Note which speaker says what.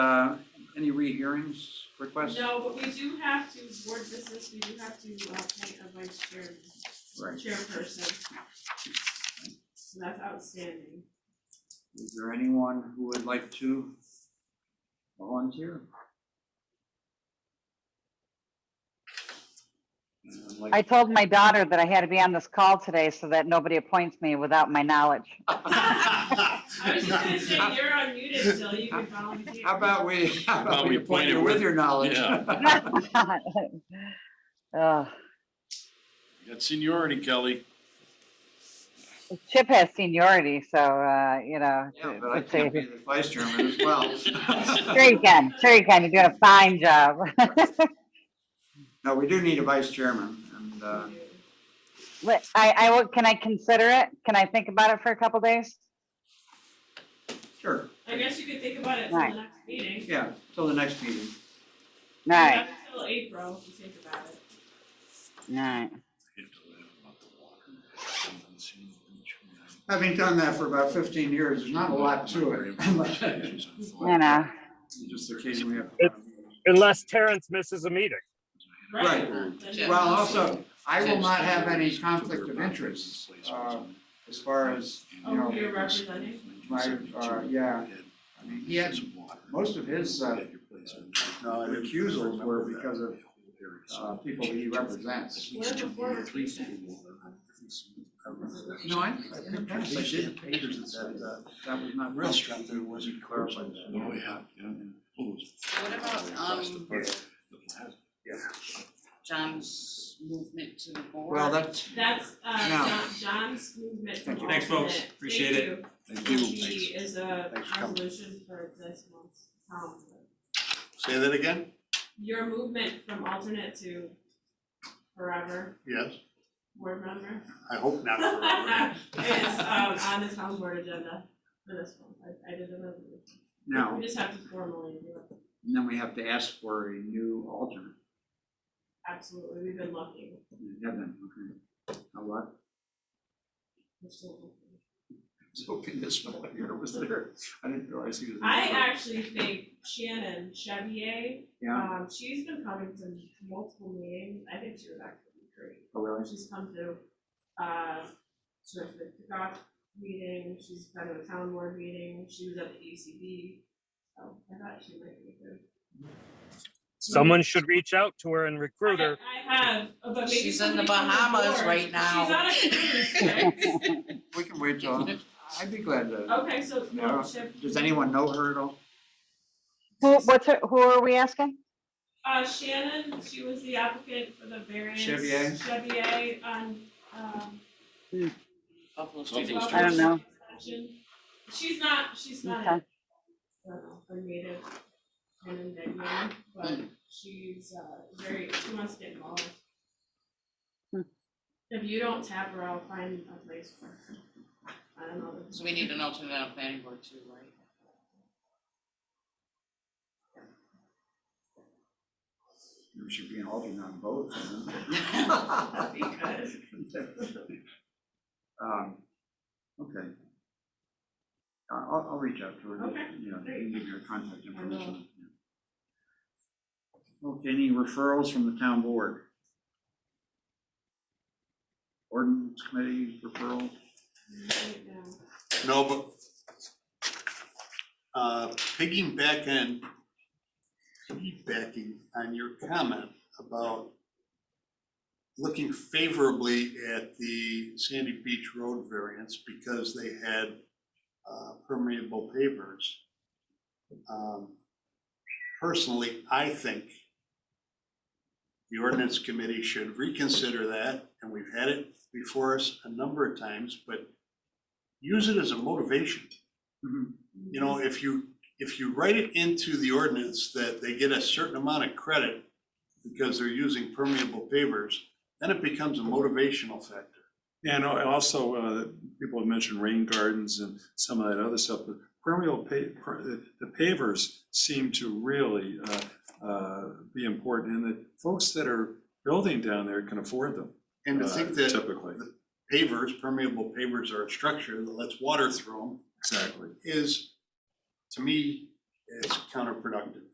Speaker 1: Uh, any rehearings requests?
Speaker 2: No, but we do have to, board business, we do have to appoint a vice chair,
Speaker 1: Right.
Speaker 2: chairperson. So that's outstanding.
Speaker 1: Is there anyone who would like to volunteer? And I'd like-
Speaker 3: I told my daughter that I had to be on this call today so that nobody appoints me without my knowledge.
Speaker 2: I was just gonna say, you're unmuted still, you can volunteer.
Speaker 1: How about we, how about
Speaker 4: about
Speaker 1: we
Speaker 4: we
Speaker 1: appoint
Speaker 4: point it
Speaker 1: you with
Speaker 4: with-
Speaker 1: your knowledge?
Speaker 3: Ugh.
Speaker 4: You Got seniority, Kelly.
Speaker 3: Chip has seniority, so, uh, you know.
Speaker 1: Yeah, but I
Speaker 3: it's a-
Speaker 1: can't be the vice chairman as well.
Speaker 3: Sure you can, sure you can, you're doing a fine job.
Speaker 1: No, we do need a vice chairman and, uh,
Speaker 3: But I, I, will- can I consider it? Can I think about it for a couple days?
Speaker 1: sure,
Speaker 2: I guess you could think about it till the
Speaker 3: Right.
Speaker 2: next meeting.
Speaker 1: yeah, till the next meeting.
Speaker 3: All right,
Speaker 2: Until April, if you think about it.
Speaker 3: all right.
Speaker 1: Having done that for about fifteen years, there's not a lot to it.
Speaker 3: You know,
Speaker 1: Just occasionally have.
Speaker 5: unless Terrence misses a meeting.
Speaker 1: Right.
Speaker 2: Then-
Speaker 1: Well, also, I will not have any conflict of interest, uh, as far as, you
Speaker 2: Oh,
Speaker 1: know,
Speaker 2: you're representing?
Speaker 1: my, uh, yeah. I mean, he had, most of his, uh, recusals were because of, uh, people he represents.
Speaker 2: What if before we're
Speaker 1: No, I, I think that's, I did papers that said that, that was not real.
Speaker 6: Restaurant there wasn't clarified.
Speaker 4: Oh, yeah, yeah.
Speaker 7: What about, um, John's movement to the board?
Speaker 1: Well, that's,
Speaker 2: That's, uh,
Speaker 1: No.
Speaker 2: John, John's movement for alternate.
Speaker 8: Thanks, folks. Appreciate it.
Speaker 2: Thank
Speaker 6: Thank
Speaker 2: you.
Speaker 6: you.
Speaker 2: He is a
Speaker 6: Thanks for coming.
Speaker 2: resolution for this month's council.
Speaker 6: Say that again?
Speaker 2: Your movement from alternate to forever
Speaker 6: Yes,
Speaker 2: board member
Speaker 6: I hope not forever.
Speaker 2: is, um, on the town board agenda for this one. I, I didn't know.
Speaker 1: no,
Speaker 2: We just have to formally do it.
Speaker 1: and then we have to ask for a new alternate.
Speaker 2: Absolutely. We've been lucky.
Speaker 1: You have them, okay. Now what?
Speaker 2: We're still lucky.
Speaker 1: I was hoping this one here was there. I didn't realize he was. in
Speaker 2: I
Speaker 1: the-
Speaker 2: actually think Shannon Chevier
Speaker 1: Yeah,
Speaker 2: Um, she's been coming to multiple meetings, I think she would actually be great.
Speaker 1: oh, really?
Speaker 2: She's come to, uh, sort of the kickoff meeting, she's been to a town board meeting, she was at the E ECB. So Oh, I thought she might be good.
Speaker 5: Someone should reach out to her and recruit her.
Speaker 2: I I have, uh, but maybe
Speaker 7: She's in the
Speaker 2: somebody from
Speaker 7: Bahamas
Speaker 2: board-
Speaker 7: right now.
Speaker 2: She's on a cruise, right?
Speaker 1: We can wait till, I'd be glad to,
Speaker 2: Okay, so,
Speaker 1: Yeah.
Speaker 2: well, Chip,
Speaker 1: Uh, does anyone know her at all?
Speaker 3: who, what's, her- who are we asking?
Speaker 2: uh, Shannon, she was the applicant for the variance.
Speaker 1: Chevier?
Speaker 2: Chevier on, um,
Speaker 7: Buffalo Street.
Speaker 4: Buffalo
Speaker 3: I don't know.
Speaker 2: She's not, she's not, I
Speaker 3: Okay.
Speaker 2: don't know, her native, kind of Indian, but
Speaker 7: Hmm.
Speaker 2: she's uh very, she wants to get involved.
Speaker 3: Hmm.
Speaker 2: If you don't tap her, I'll find a place for her. I don't know.
Speaker 7: So we need an alternate on planning board too, right?
Speaker 1: There should be an alternate on both.
Speaker 2: That'd be good.
Speaker 1: Um, okay. I- I'll, I'll reach out to her,
Speaker 2: Okay,
Speaker 1: you know,
Speaker 2: great.
Speaker 1: give her contact
Speaker 2: will.
Speaker 1: information. yeah. Okay, any referrals from the town board? Ordinance committee referral?
Speaker 2: Right now.
Speaker 6: No, but uh, piggyback and piggybacking on your comment about looking favorably at the Sandy Beach Road variance because they had uh, permeable pavers. Um, Personally, I think the ordinance committee should reconsider that, and we've had it before us a number of times, but use it as a motivation.
Speaker 1: Mhm.
Speaker 6: You know, if you, if you write it into the ordinance that they get a certain amount of credit because they're using permeable pavers, then it becomes a motivational factor.
Speaker 8: And al- also, uh, people have mentioned rain gardens and some of that other stuff, but permeable pa- per- the the pavers seem to really, uh, uh, be important, and the folks that are building down there can afford them.
Speaker 6: And to
Speaker 8: uh,
Speaker 6: think that
Speaker 8: Typically,
Speaker 6: pavers, permeable pavers are a structure that lets water through them
Speaker 8: exactly.
Speaker 6: is, to me, is counterproductive.